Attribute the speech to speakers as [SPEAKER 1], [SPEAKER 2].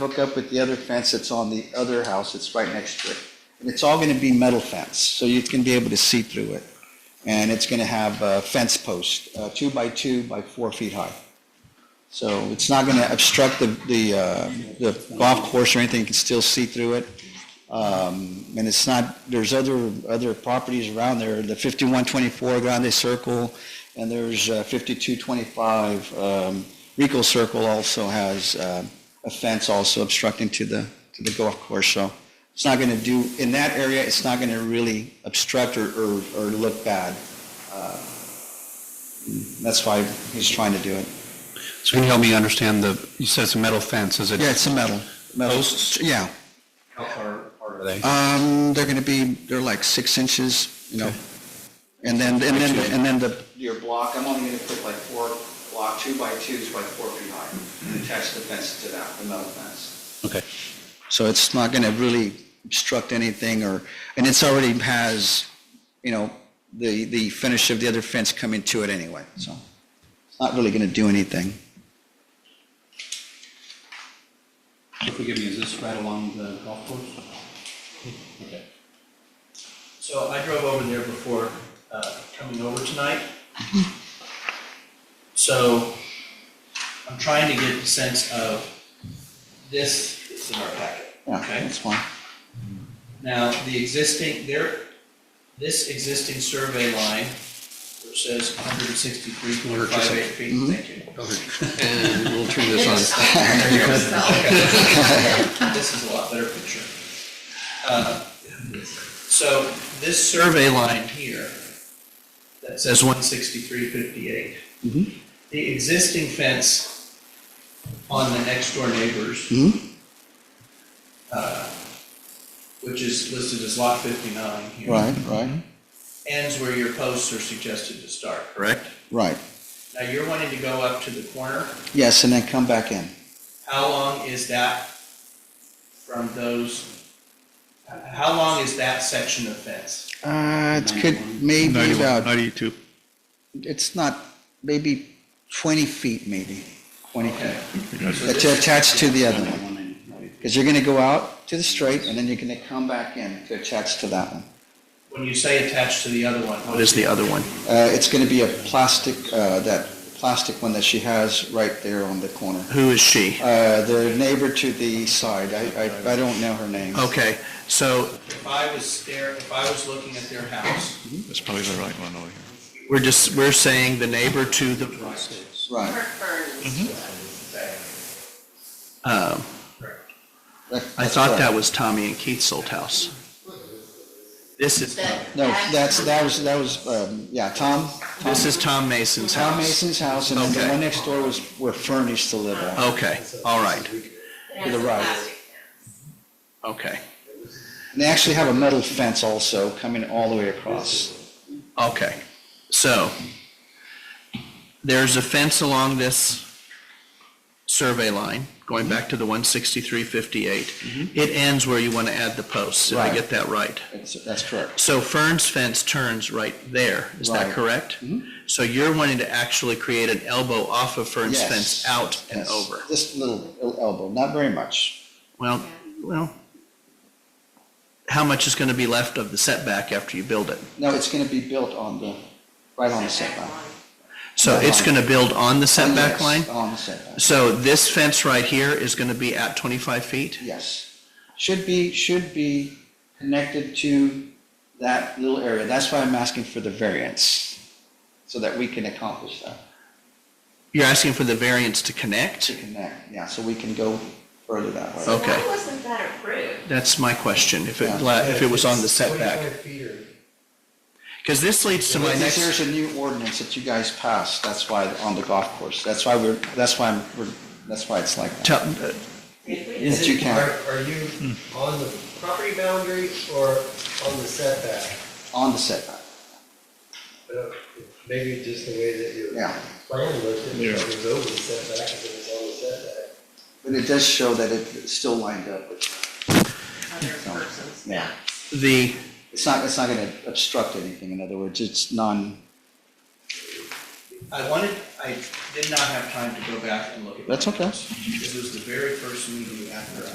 [SPEAKER 1] hook up with the other fence that's on the other house that's right next to it. And it's all going to be metal fence, so you can be able to see through it. And it's going to have a fence post, uh, two by two by four feet high. So it's not going to obstruct the, the, uh, the golf course or anything, you can still see through it. Um, and it's not, there's other, other properties around there, the fifty-one twenty-four Grande Circle, and there's uh, fifty-two twenty-five, um, Rico Circle also has, um, a fence also obstructing to the, to the golf course, so it's not gonna do, in that area, it's not gonna really obstruct or, or, or look bad. Uh, That's why he's trying to do it.
[SPEAKER 2] So can you help me understand the, you said it's a metal fence, is it?
[SPEAKER 1] Yeah, it's a metal. metal-
[SPEAKER 2] Posts?
[SPEAKER 1] Yeah,
[SPEAKER 2] How far apart are they?
[SPEAKER 1] um, they're gonna be, they're like six inches, you know, and then, and then, and then the. Your block, I'm only gonna put like four, block, two by twos by four feet high, and attach the fence to that, the metal fence.
[SPEAKER 2] Okay.
[SPEAKER 1] So it's not going to really obstruct anything or, and it's already has, you know, the, the finish of the other fence coming to it anyway, so it's not really going to do anything.
[SPEAKER 2] Forgive me, is this right along the golf course? Okay.
[SPEAKER 3] So I drove over there before uh, coming over tonight. So I'm trying to get a sense of this, it's in our packet.
[SPEAKER 1] Yeah,
[SPEAKER 3] Okay.
[SPEAKER 1] that's fine.
[SPEAKER 3] Now, the existing, there, this existing survey line, which says 163.58 feet, thank you.
[SPEAKER 4] Uh,
[SPEAKER 2] And we'll turn this on.
[SPEAKER 3] This is a lot better picture. Uh, So this survey line here that says one sixty-three fifty-eight.
[SPEAKER 1] Mhm.
[SPEAKER 3] The existing fence on the next door neighbors,
[SPEAKER 1] Mhm.
[SPEAKER 3] uh, which is listed as lot fifty-nine here.
[SPEAKER 1] Right, right,
[SPEAKER 3] Ends where your posts are suggested to start, correct?
[SPEAKER 1] right.
[SPEAKER 3] Now you're wanting to go up to the corner.
[SPEAKER 1] Yes, and then come back in.
[SPEAKER 3] How long is that from those, h- how long is that section of fence?
[SPEAKER 1] Uh, it could maybe about,
[SPEAKER 4] 92.
[SPEAKER 1] it's not, maybe 20 feet maybe, 20 feet.
[SPEAKER 3] Okay. So
[SPEAKER 1] That's
[SPEAKER 3] this-
[SPEAKER 1] attached to the other one. Because you're going to go out to the straight and then you're going to come back in to attach to that one.
[SPEAKER 3] When you say attached to the other one, what is the other one?
[SPEAKER 1] Uh, it's going to be a plastic, uh, that plastic one that she has right there on the corner.
[SPEAKER 4] Who is she?
[SPEAKER 1] Uh, the neighbor to the side, I, I, I don't know her name.
[SPEAKER 4] Okay, so.
[SPEAKER 3] If I was there, if I was looking at their house,
[SPEAKER 4] That's probably the right one over here. We're just, we're saying the neighbor to the,
[SPEAKER 1] Right.
[SPEAKER 4] um, I thought that was Tommy and Keith's old house. This is,
[SPEAKER 1] Mm-hmm. No, that's, that was, that was, um, yeah, Tom,
[SPEAKER 4] this is Tom Mason's
[SPEAKER 1] Tom
[SPEAKER 4] house.
[SPEAKER 1] Mason's house and then the
[SPEAKER 4] Okay.
[SPEAKER 1] one next door was, were furnished to live on.
[SPEAKER 4] Okay, all right,
[SPEAKER 1] To the right.
[SPEAKER 4] okay,
[SPEAKER 1] And they actually have a metal fence also coming all the way across.
[SPEAKER 4] okay. So there's a fence along this survey line, going back to the
[SPEAKER 3] Mm-hmm.
[SPEAKER 4] 16358. It ends where you want to add the posts, Did I
[SPEAKER 1] Right.
[SPEAKER 4] get that right.
[SPEAKER 1] That's, that's correct.
[SPEAKER 4] So Fern's fence turns right there, is that
[SPEAKER 1] Right. Hmm?
[SPEAKER 4] correct? So you're wanting to actually create an elbow off of Fern's
[SPEAKER 1] Yes.
[SPEAKER 4] fence out and
[SPEAKER 1] Yes.
[SPEAKER 4] over?
[SPEAKER 1] Just a little elbow, not very much.
[SPEAKER 4] Well, well, how much is going to be left of the setback after you build it?
[SPEAKER 1] No, it's going to be built on the, right on the setback.
[SPEAKER 4] So
[SPEAKER 1] That
[SPEAKER 4] it's
[SPEAKER 1] line.
[SPEAKER 4] going to build on the
[SPEAKER 1] Oh,
[SPEAKER 4] setback
[SPEAKER 1] Yes,
[SPEAKER 4] line?
[SPEAKER 1] On the setback.
[SPEAKER 4] So this fence right here is going to be at 25 feet?
[SPEAKER 1] Yes. Should be, should be connected to that little area. That's why I'm asking for the variance, so that we can accomplish that,
[SPEAKER 4] You're asking for the variance to
[SPEAKER 1] to
[SPEAKER 4] connect?
[SPEAKER 1] connect, yeah, so we can go further that way.
[SPEAKER 4] Oh. Okay.
[SPEAKER 5] Why wasn't that approved?
[SPEAKER 4] That's my question, if it,
[SPEAKER 1] Yeah.
[SPEAKER 4] la- if it was on the setback. Because this leads to my
[SPEAKER 1] But
[SPEAKER 4] next.
[SPEAKER 1] There's a new ordinance that you guys passed, that's why, on the golf course, that's why we're, that's why I'm, we're, that's why it's like that.
[SPEAKER 4] tell- uh,
[SPEAKER 5] If
[SPEAKER 6] Is
[SPEAKER 1] That you
[SPEAKER 6] it,
[SPEAKER 1] can.
[SPEAKER 6] are, are you on the property boundary or on the setback?
[SPEAKER 1] On the setback,
[SPEAKER 6] Uh, Maybe just the way that your
[SPEAKER 1] yeah.
[SPEAKER 6] plan looked, if it was over the setback, if it was on the setback.
[SPEAKER 1] But it does show that it- it's still lined up with,
[SPEAKER 5] Other persons.
[SPEAKER 1] yeah.
[SPEAKER 4] The,
[SPEAKER 1] It's not, it's not gonna obstruct anything, in other words, it's non,
[SPEAKER 3] I wanted, I did not have time to go back and look at.
[SPEAKER 1] That's okay.
[SPEAKER 3] This was the very first meeting after